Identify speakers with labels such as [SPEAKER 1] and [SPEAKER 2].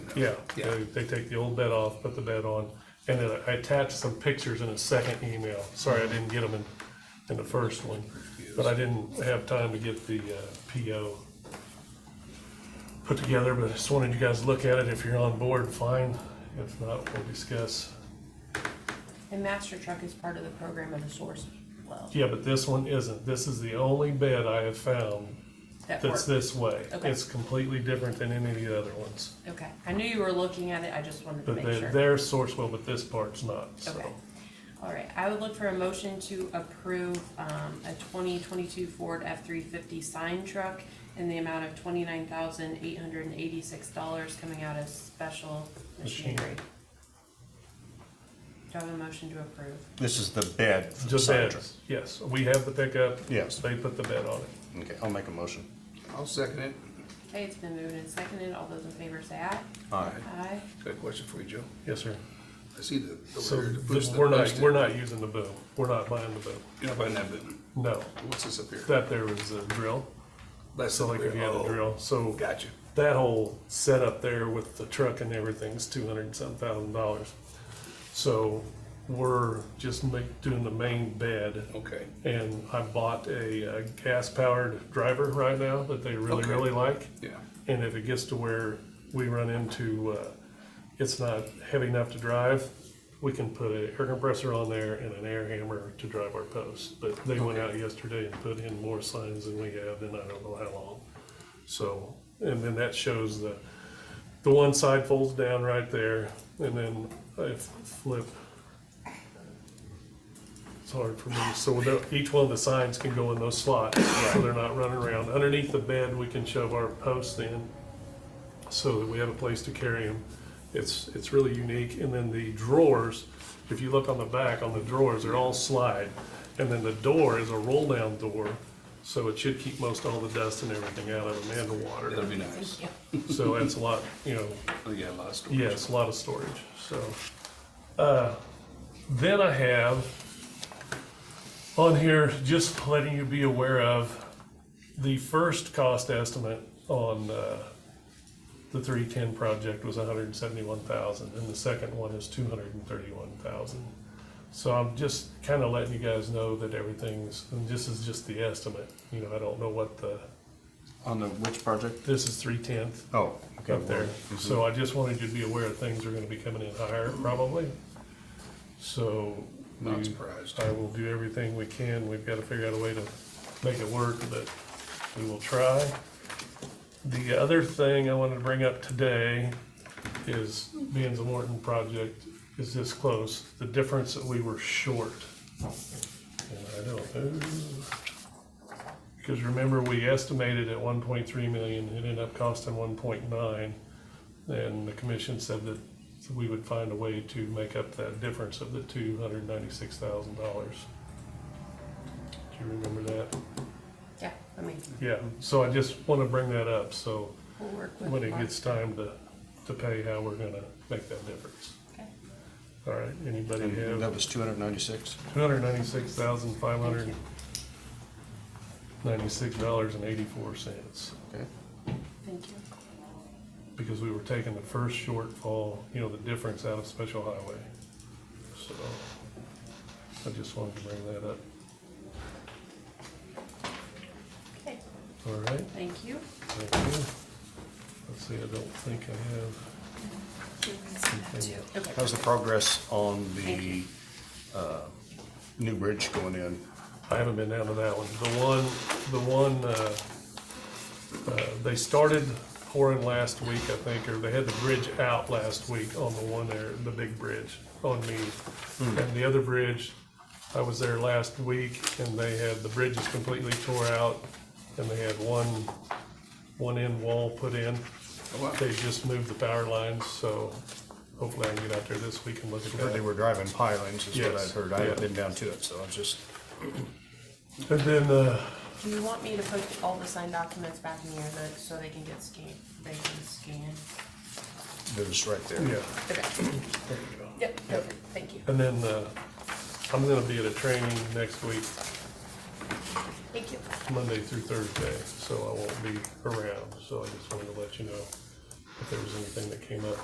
[SPEAKER 1] Yeah,
[SPEAKER 2] Yeah.
[SPEAKER 1] they, they take the old bed off, put the bed on, and then I attached some pictures in a second email. Sorry, I didn't get them in, in the first one, but I didn't have time to get the, uh, PO put together, but I just wanted you guys to look at it. If you're on board, fine. If not, we'll discuss.
[SPEAKER 3] And Master Truck is part of the program of the source as well.
[SPEAKER 1] Yeah, but this one isn't. This is the only bed I have found
[SPEAKER 3] That
[SPEAKER 1] that's
[SPEAKER 3] works.
[SPEAKER 1] this way.
[SPEAKER 3] Okay.
[SPEAKER 1] It's completely different than any of the other ones.
[SPEAKER 3] Okay, I knew you were looking at it, I just wanted to
[SPEAKER 1] But
[SPEAKER 3] make
[SPEAKER 1] their,
[SPEAKER 3] sure.
[SPEAKER 1] their source will, but this part's not, so.
[SPEAKER 3] Okay, all right, I would look for a motion to approve, um, a twenty twenty-two Ford F three fifty sign truck in the amount of twenty-nine thousand eight hundred and eighty-six dollars coming out of special machinery.
[SPEAKER 1] Machinery.
[SPEAKER 3] Do I have a motion to approve?
[SPEAKER 4] This is the bed. for the
[SPEAKER 1] Just
[SPEAKER 4] side
[SPEAKER 1] beds, yes. We have the pickup.
[SPEAKER 4] Yes.
[SPEAKER 1] They put the bed on it.
[SPEAKER 4] truck. Okay, I'll make a motion.
[SPEAKER 2] I'll second it.
[SPEAKER 3] Okay, it's been moved and seconded, all those in favor say aye.
[SPEAKER 4] Aye.
[SPEAKER 3] Aye.
[SPEAKER 2] Got a question for you, Joe.
[SPEAKER 1] Yes, sir.
[SPEAKER 2] I see the.
[SPEAKER 1] So
[SPEAKER 2] over there, the push
[SPEAKER 1] th-
[SPEAKER 2] that
[SPEAKER 1] we're not,
[SPEAKER 2] post it.
[SPEAKER 1] we're not using the boom. We're not buying the boom.
[SPEAKER 2] You're not buying that boom.
[SPEAKER 1] No.
[SPEAKER 2] What's this up here?
[SPEAKER 1] That there was a drill.
[SPEAKER 2] That's
[SPEAKER 1] So like if you had a
[SPEAKER 2] oh,
[SPEAKER 1] drill, so
[SPEAKER 2] Gotcha.
[SPEAKER 1] that whole setup there with the truck and everything's two hundred and some thousand dollars. So we're just make, doing the main bed.
[SPEAKER 2] Okay.
[SPEAKER 1] And I bought a, uh gas powered driver right now that they really,
[SPEAKER 2] Okay.
[SPEAKER 1] really like.
[SPEAKER 2] Yeah.
[SPEAKER 1] And if it gets to where we run into, uh, it's not heavy enough to drive, we can put an air compressor on there and an air hammer to drive our posts. But they went out yesterday and put in more signs than we have in I don't know how long. So, and then that shows the, the one side folds down right there and then I flip. It's hard for me, so without, each one of the signs can go in those slots, so they're not running around. Underneath the bed, we can shove our posts in so that we have a place to carry them. It's, it's really unique. And then the drawers, if you look on the back, on the drawers, they're all slide. And then the door is a roll-down door, so it should keep most all the dust and everything out of them and the
[SPEAKER 2] That'll
[SPEAKER 1] water.
[SPEAKER 2] be nice.
[SPEAKER 1] So that's a lot, you know,
[SPEAKER 2] Oh, yeah, a lot of storage.
[SPEAKER 1] Yes, a lot of storage, so. uh, Then I have on here, just letting you be aware of, the first cost estimate on uh, the three-ten project was hundred and seventy-one thousand, and the second one is two hundred and thirty-one thousand. So I'm just kind of letting you guys know that everything's, and this is just the estimate, you know, I don't know what the,
[SPEAKER 4] On the which project?
[SPEAKER 1] this is three-tenth,
[SPEAKER 4] Oh, okay.
[SPEAKER 1] up there.
[SPEAKER 4] well,
[SPEAKER 1] So I just wanted you to be aware that things are gonna be coming in higher probably. So.
[SPEAKER 2] Not
[SPEAKER 1] we-
[SPEAKER 2] surprised.
[SPEAKER 1] I will do everything we can. We've gotta figure out a way to make it work, but we will try. The other thing I wanted to bring up today is being the Morton project is this close, the difference that we were short. And I don't know. Because remember, we estimated at one point three million, it ended up costing one point nine. And the commission said that we would find a way to make up that difference of the two hundred ninety-six thousand dollars. Do you remember that?
[SPEAKER 3] Yeah, I mean,
[SPEAKER 1] Yeah, so I just want to bring that up, so
[SPEAKER 3] we'll work with.
[SPEAKER 1] when it
[SPEAKER 3] Mark.
[SPEAKER 1] gets time to, to pay, how we're gonna make that difference.
[SPEAKER 3] Okay.
[SPEAKER 1] All right, anybody
[SPEAKER 4] And That
[SPEAKER 1] have
[SPEAKER 4] was two hundred ninety-six.
[SPEAKER 1] two hundred ninety-six thousand five hundred ninety-six dollars and eighty-four cents?
[SPEAKER 4] Okay.
[SPEAKER 3] Thank you.
[SPEAKER 1] because we were taking the first shortfall, you know, the difference out of special highway. So I just wanted to bring that up.
[SPEAKER 3] Okay,
[SPEAKER 1] All right,
[SPEAKER 3] thank you.
[SPEAKER 1] thank you. Let's see, I don't think I have,
[SPEAKER 3] Okay.
[SPEAKER 4] How's the progress on
[SPEAKER 3] Thank
[SPEAKER 4] the,
[SPEAKER 3] you.
[SPEAKER 4] uh, new bridge going in?
[SPEAKER 1] I haven't been down to that one. The one, the one, uh, uh, they started pouring last week, I think, or they had the bridge out last week on the one there, the big bridge on me.
[SPEAKER 2] Hmm.
[SPEAKER 1] And the other bridge, I was there last week and they had, the bridge is completely tore out and they had one, one end wall put in.
[SPEAKER 2] Oh, wow.
[SPEAKER 1] They just moved the power lines, so hopefully I can get out there this week and look at
[SPEAKER 4] Heard They
[SPEAKER 1] that.
[SPEAKER 4] were driving pilings is what
[SPEAKER 1] Yes,
[SPEAKER 4] I'd heard. I haven't
[SPEAKER 1] yeah.
[SPEAKER 4] been down to it, so I was just,
[SPEAKER 1] And then, uh,
[SPEAKER 3] Do you want me to put all the signed documents back in your notes so they can get scanned, they can scan?
[SPEAKER 4] it was right there.
[SPEAKER 1] yeah.
[SPEAKER 3] Okay,
[SPEAKER 1] there you go.
[SPEAKER 3] yep, perfect, thank you.
[SPEAKER 1] And then, uh, I'm gonna be at a training next week,
[SPEAKER 3] Thank you.
[SPEAKER 1] Monday through Thursday, so I won't be around, so I just wanted to let you know if there was anything that came up.